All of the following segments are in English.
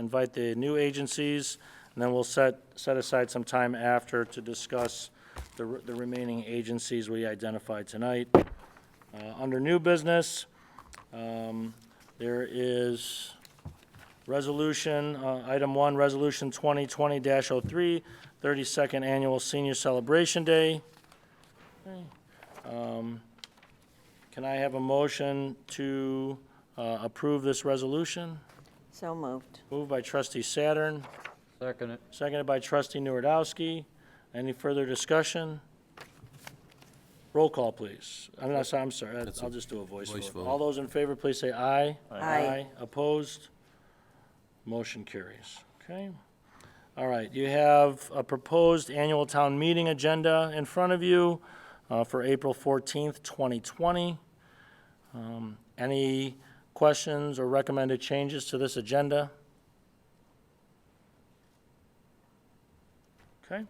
invite the new agencies, and then we'll set, set aside some time after to discuss the, re- the remaining agencies we identified tonight. Uh, under new business, um, there is resolution, uh, item one, resolution twenty twenty 3 32nd annual senior celebration day. Um, Can I have a motion to, uh, approve this resolution? So moved. Moved by trustee Saturn, Second it. seconded by trustee Nuredowski. Any further discussion? Roll call, please. I'm not, I'm sorry, I- I'll just do a voice voice vote. vote. All those in favor, please say aye. Aye. Opposed? Motion carries. Okay. All right, you have a proposed annual town meeting agenda in front of you uh, for April 14th, 2020. Um, Any questions or recommended changes to this agenda? Okay.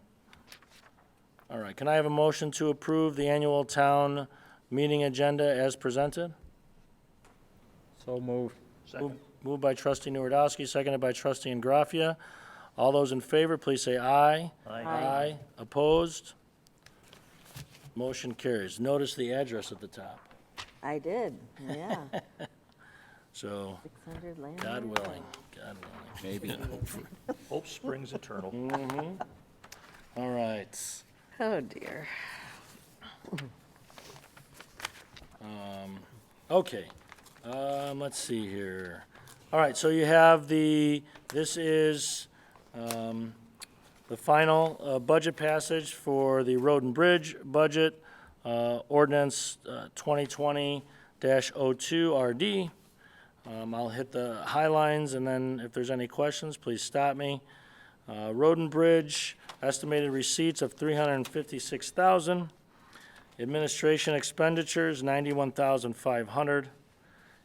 All right, can I have a motion to approve the annual town meeting agenda as presented? So moved. Move- Moved by trustee Nuredowski, seconded by trustee Ingraffia. All those in favor, please say aye. Aye. Opposed? Motion carries. Notice the address at the top. I did, yeah. So, 600 Landmark. God willing, God willing. Maybe. Hope springs eternal. Mm-hmm. All right. Oh, dear. Okay, um, let's see here. All right, so you have the, this is, um, the final, uh, budget passage for the road and bridge budget, uh, ordinance, uh, twenty twenty dash oh two RD. Um, I'll hit the high lines and then if there's any questions, please stop me. Uh, road and bridge, estimated receipts of three hundred and fifty-six thousand. Administration expenditures, ninety-one thousand five hundred.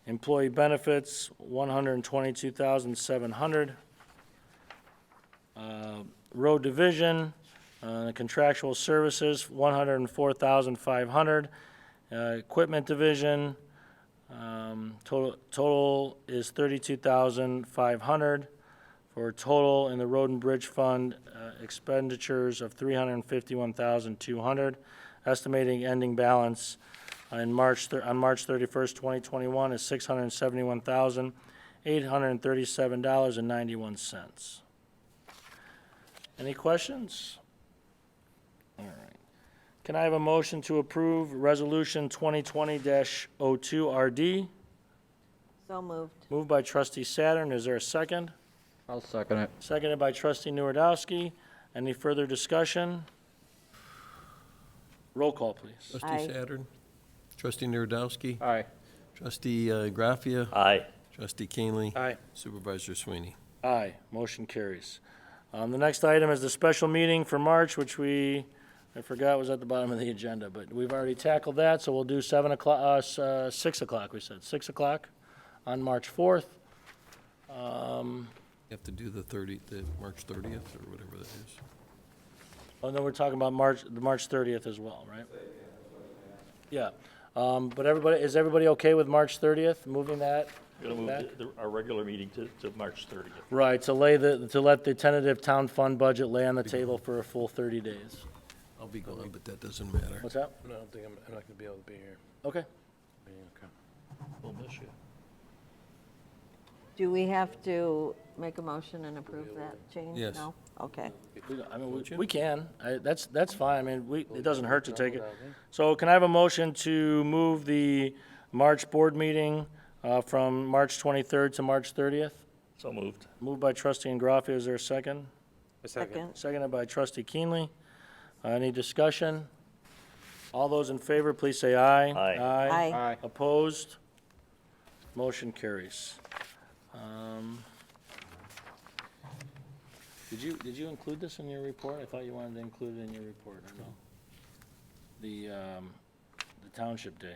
Employee benefits, one hundred and twenty-two thousand seven hundred. Uh, Road division, uh, contractual services, one hundred and four thousand five hundred. Uh, Equipment division, um, total, total is thirty-two thousand five hundred. For a total in the road and bridge fund uh, expenditures of three hundred and fifty-one thousand two hundred estimating ending balance uh, in March, thir- on March 31st, 2021 is $671,837.91. Any questions? All right. Can I have a motion to approve Resolution 2020-02RD? So moved. Moved by trustee Saturn. Is there a second? I'll second it. Seconded by trustee Nuredowski. Any further discussion? Roll call, please. Aye. Trustee Saturn. Trustee Nuredowski. Aye. Trustee uh, Graffia. Aye. Trustee Keenly. Aye. Supervisor Sweeney. Aye, motion carries. Um, The next item is the special meeting for March, which we, I forgot was at the bottom of the agenda, but we've already tackled that, so we'll do 7 o'clock, uh, s- uh, 6 o'clock, we said, 6 o'clock on March 4th. You have to do the 30, the March 30th or whatever that is. Oh, no, we're talking about March, the March 30th as well, right? Yeah, Um, but everybody, is everybody okay with March 30th, moving that? Gonna move Back? the- the- our regular meeting to, to March 30th. Right, to lay the, to let the tentative town fund budget lay on the table for a full 30 days. I'll be gone, Uh, but that doesn't matter. What's that? No, I don't think I'm, I'm not gonna be able to be here. Okay. We'll miss you. Do we have to make a motion and approve that change? Yes. No? Okay. We don't- I mean, we- we can, I- that's, that's fine, I mean, we, it doesn't hurt to take it. So can I have a motion to move the March board meeting uh, from March 23rd to March 30th? So moved. Moved by trustee Ingraffia, is there a second? Second. Seconded by trustee Keenly. Uh, Any discussion? All those in favor, please say aye. Aye. Aye. Aye. Opposed? Motion carries. Um, Did you, did you include this in your report? I thought you wanted to include it in your report, or no? The, um, the Township Day.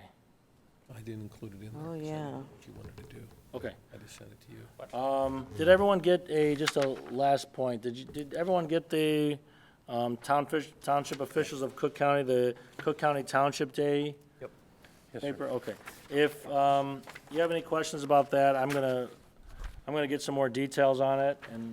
I didn't include it in there. Oh, 'cause I didn't know yeah. What you wanted to do. Okay. I just sent it to you. Um, Did everyone get a, just a last point, did you, did everyone get the um, town fish- township officials of Cook County, the Cook County Township Day? Yes, sir. Paper, okay. If um, you have any questions about that, I'm gonna, I'm gonna get some more details on it and